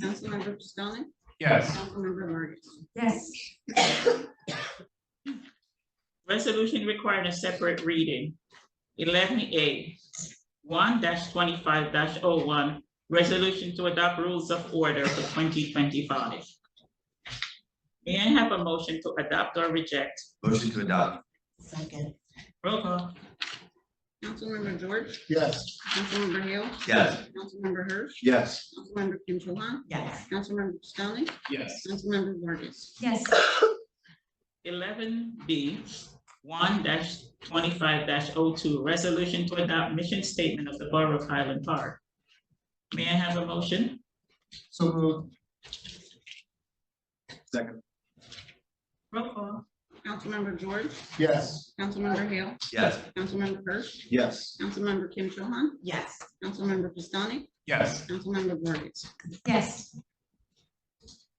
Councilmember Pistonik, Yes. Councilmember Morgan. Yes. Resolution requiring a separate reading. Eleven A, one twenty-five oh one resolution to adopt rules of order for twenty twenty-five. May I have a motion to adopt or reject? Motion to adopt. Second. Roll call. Councilmember George, Yes. Councilmember Hale, Yes. Councilmember Hirsch, Yes. Councilmember Kim Cho Han, Yes. Councilmember Pistonik, Yes. Councilmember Vargas. Yes. Eleven B, one twenty-five 2 resolution to adopt mission statement of the Borough of Highland Park. May I have a motion? So moved. Second. Roll call. Councilmember George, Yes. Councilmember Hale, Yes. Councilmember Hirsch, Yes. Councilmember Kim Cho Han, Yes. Councilmember Pistonik, Yes. Councilmember Vargas. Yes.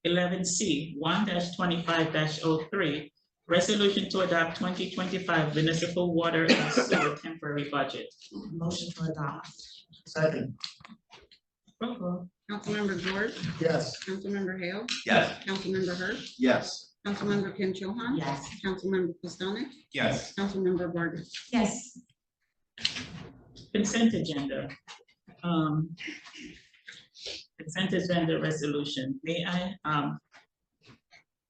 eleven C, one twenty-five 3 resolution to adopt twenty twenty-five municipal water and sewer temporary budget. Motion to adopt. Second. Roll call. Councilmember George, Yes. Councilmember Hale, Yes. Councilmember Hirsch, Yes. Councilmember Kim Cho Han, Yes. Councilmember Pistonik, Yes. Councilmember Vargas. Yes. Consent agenda. Um, Consent agenda resolution. May I, um,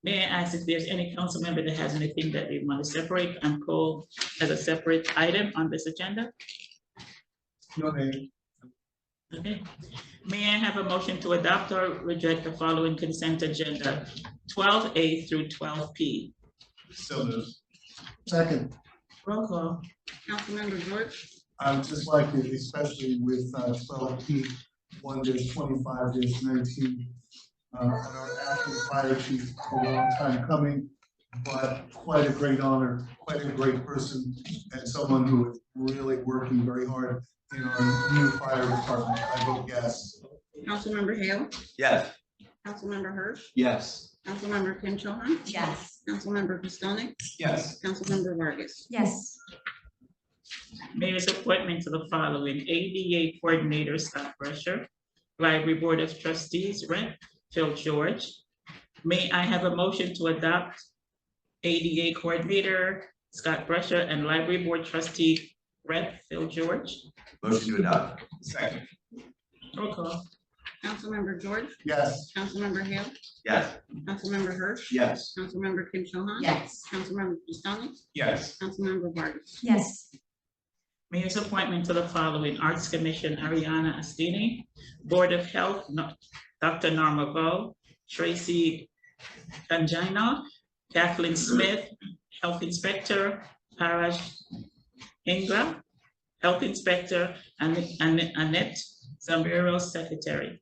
may I ask if there's any council member that has anything that they want to separate and call as a separate item on this agenda? No name. Okay, may I have a motion to adopt or reject the following consent agenda, twelve A through twelve P? So moved. Second. Roll call. Councilmember George, I would just like it, especially with twelve P, one dash twenty-five dash nineteen. Uh, I know acting fire chief for a long time coming, but quite a great honor, quite a great person, and someone who is really working very hard in our new fire department. I vote yes. Councilmember Hale, Yes. Councilmember Hirsch, Yes. Councilmember Kim Cho Han, Yes. Councilmember Pistonik, Yes. Councilmember Vargas. Yes. Mayor's appointment to the following ADA Coordinator Scott Brescher, Library Board of Trustees Rep. Phil George. May I have a motion to adopt ADA Coordinator Scott Brescher and Library Board Trustee Rep. Phil George? Motion to adopt. Second. Roll call. Councilmember George, Yes. Councilmember Hale, Yes. Councilmember Hirsch, Yes. Councilmember Kim Cho Han, Yes. Councilmember Pistonik, Yes. Councilmember Vargas. Yes. Mayor's appointment to the following Arts Commission, Ariana Astini, Board of Health, No- Dr. Norma Vo, Tracy Angina, Kathleen Smith, Health Inspector, Parash Ingram, Health Inspector, and and- Annette Zambiro, Secretary.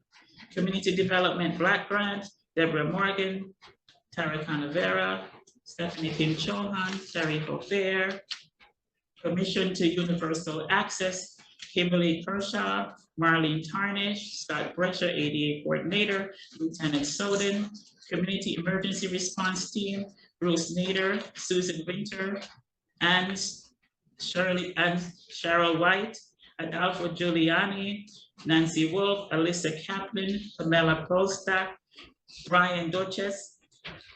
Community Development Black Grant, Deborah Morgan, Tara Canavera, Stephanie Kim Chohan, Terry Hofair, Commission to Universal Access, Kimberly Kershaw, Marlene Tarnish, Scott Brescher, ADA Coordinator, Lieutenant Soden, Community Emergency Response Team, Bruce Nader, Susan Winter, and Shirley, and Cheryl White, Adolfo Giuliani, Nancy Wolf, Alyssa Kaplan, Pamela Postak, Brian Duchess,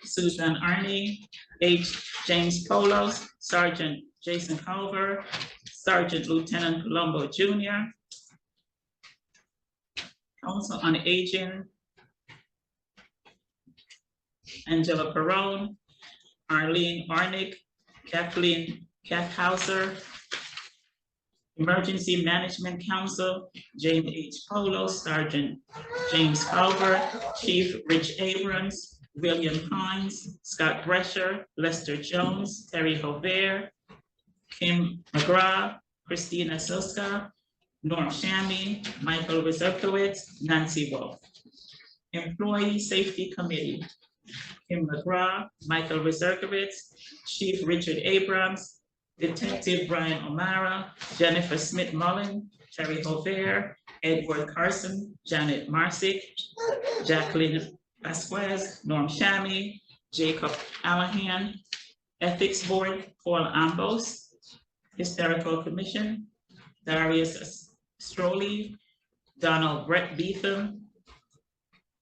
Susan Arnie, H. James Polos, Sergeant Jason Culver, Sergeant Lieutenant Colombo Jr., Council on Aging, Angela Perone, Arlene Arnick, Kathleen Kathhauser, Emergency Management Council, James H. Polo, Sergeant James Culver, Chief Rich Abrams, William Hines, Scott Brescher, Lester Jones, Terry Hovair, Kim McGraw, Christina Soska, Norm Shammy, Michael Rizekowitz, Nancy Wolf. Employee Safety Committee, Kim McGraw, Michael Rizekowitz, Chief Richard Abrams, Detective Brian O'Mara, Jennifer Smith Mullen, Terry Hovair, Edward Carson, Janet Marsick, Jacqueline Vasquez, Norm Shammy, Jacob Allahan, Ethics Board, Paul Ambos, Historical Commission, Darius Stroley, Donald Brett Beetham,